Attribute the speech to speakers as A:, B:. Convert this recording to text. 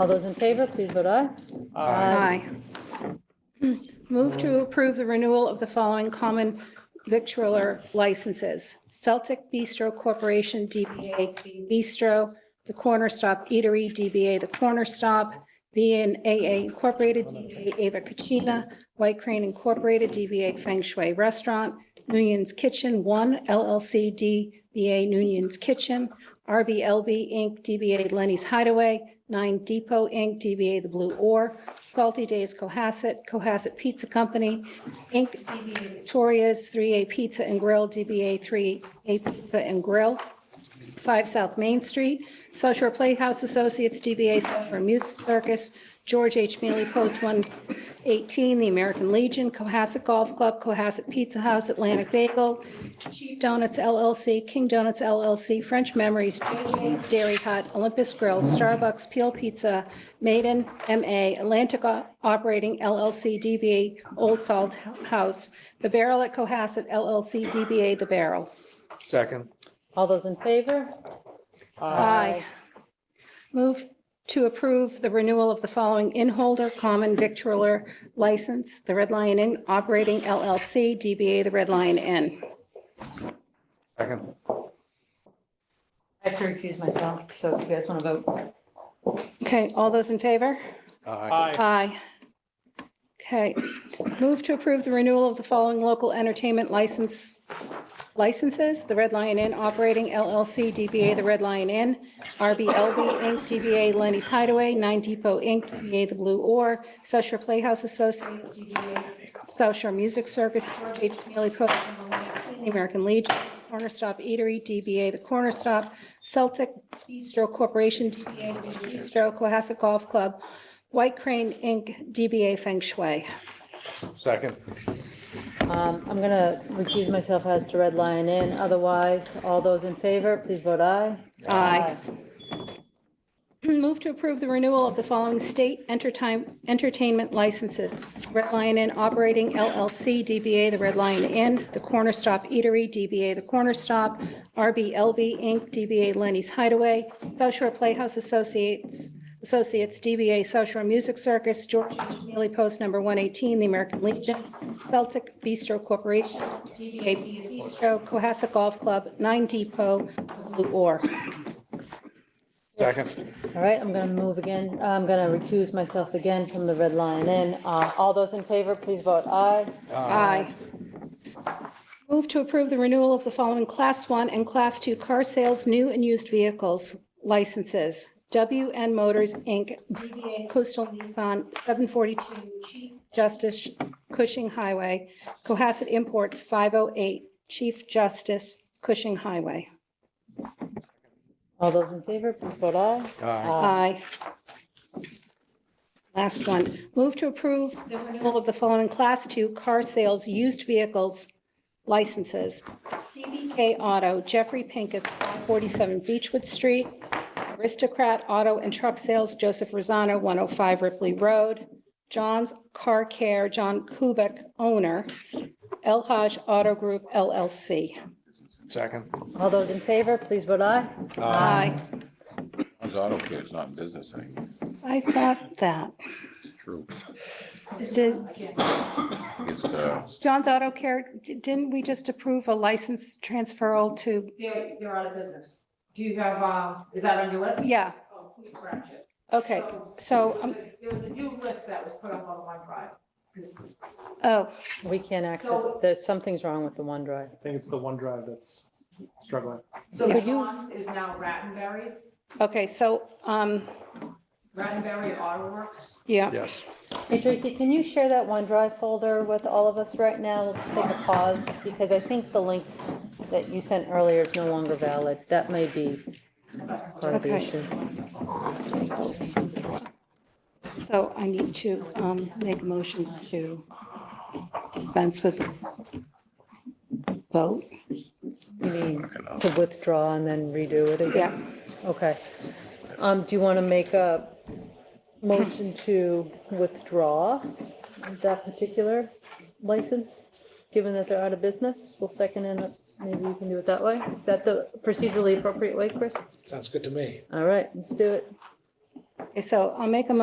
A: All those in favor, please vote aye.
B: Aye. Move to approve the renewal of the following common victualler licenses. Celtic Bistro Corporation, DBA Green Bistro, The Corner Stop Eatery, DBA The Corner Stop, VNAA Incorporated, DBA Ava Kachina, White Crane Incorporated, DBA Feng Shui Restaurant, Noonan's Kitchen One LLC, DBA Noonan's Kitchen, RBLB Inc., DBA Lenny's Hideaway, Nine Depot Inc., DBA The Blue Oar, Salty Days Cohasset, Cohasset Pizza Company, Inc., DBA Victoria's, 3A Pizza and Grill, DBA 3A Pizza and Grill, 5 South Main Street, South Shore Playhouse Associates, DBA South Shore Music Circus, George H. Mealy Post 118, The American Legion, Cohasset Golf Club, Cohasset Pizza House, Atlantic Bagel, Chief Donuts LLC, King Donuts LLC, French Memories, JJ's Dairy Hut, Olympus Grill, Starbucks, Peel Pizza, Maiden, MA, Atlantic O- Operating LLC, DBA Old Salt House, The Barrel at Cohasset LLC, DBA The Barrel.
C: Second.
A: All those in favor?
B: Aye. Move to approve the renewal of the following inholder common victualler license, the Red Lion Inn Operating LLC, DBA The Red Lion Inn.
C: Second.
A: I have to recuse myself, so if you guys want to vote.
B: Okay, all those in favor?
C: Aye.
B: Aye. Okay. Move to approve the renewal of the following local entertainment license, licenses, the Red Lion Inn Operating LLC, DBA The Red Lion Inn, RBLB Inc., DBA Lenny's Hideaway, Nine Depot Inc., DBA The Blue Oar, South Shore Playhouse Associates, DBA South Shore Music Circus, George H. Mealy Post, The American Legion, Corner Stop Eatery, DBA The Corner Stop, Celtic Bistro Corporation, DBA Bistro, Cohasset Golf Club, White Crane Inc., DBA Feng Shui.
C: Second.
A: Um, I'm going to recuse myself as to Red Lion Inn. Otherwise, all those in favor, please vote aye.
B: Aye. Move to approve the renewal of the following state entertain- entertainment licenses. Red Lion Inn Operating LLC, DBA The Red Lion Inn, The Corner Stop Eatery, DBA The Corner Stop, RBLB Inc., DBA Lenny's Hideaway, South Shore Playhouse Associates, Associates, DBA South Shore Music Circus, George H. Mealy Post Number 118, The American Legion, Celtic Bistro Corporation, DBA Bistro, Cohasset Golf Club, Nine Depot, The Blue Oar.
C: Second.
A: All right, I'm going to move again. uh, I'm going to recuse myself again from the Red Lion Inn. Uh, All those in favor, please vote aye.
B: Aye. Move to approve the renewal of the following Class 1 and Class 2 car sales, new and used vehicles licenses. WN Motors, Inc., DBA Coastal Nissan, 742 Chief Justice Cushing Highway, Cohasset Imports, 508 Chief Justice Cushing Highway.
A: All those in favor, please vote aye.
C: Aye.
B: Aye. Last one. Move to approve the renewal of the following Class 2 car sales used vehicles licenses. CBK Auto, Jeffrey Pincus, 47 Beechwood Street. Aristocrat Auto and Truck Sales, Joseph Rosano, 105 Ripley Road. John's Car Care, John Kubek, owner. El Haj Auto Group LLC.
C: Second.
A: All those in favor, please vote aye.
B: Aye.
D: His auto care is not in business anymore.
B: I thought that.
D: It's true.
B: Did-
D: It's, uh,
B: John's Auto Care, didn't we just approve a license transferal to,
E: They're, they're out of business. Do you have, um, is that on your list?
B: yeah,
E: Oh, please scratch it.
B: okay, so, um,
E: There was a new list that was put up on OneDrive, because,
B: oh,
A: We can't access,
E: So-
A: there's, something's wrong with the OneDrive.
F: I think it's the OneDrive that's struggling.
E: so the
A: Could you-
E: Tom's is now Rattenberry's,
B: okay, so, um,
E: Rattenberry Auto Works.
B: yeah,
C: Yes.
A: Hey Tracy, can you share that OneDrive folder with all of us right now? We'll just take a pause because I think the link that you sent earlier is no longer valid. That may be part of the
B: Okay.
A: issue.
B: so I need to, um, make a motion to dispense with this vote,
A: You need to withdraw and then redo it again?
B: yeah,
A: Okay. Um, do you want to make a motion to withdraw that particular license? Given that they're out of business, we'll second and uh, maybe you can do it that way. Is that the procedurally appropriate way, Chris?
G: Sounds good to me.
A: All right, let's do it.
B: Okay, so I'll make a motion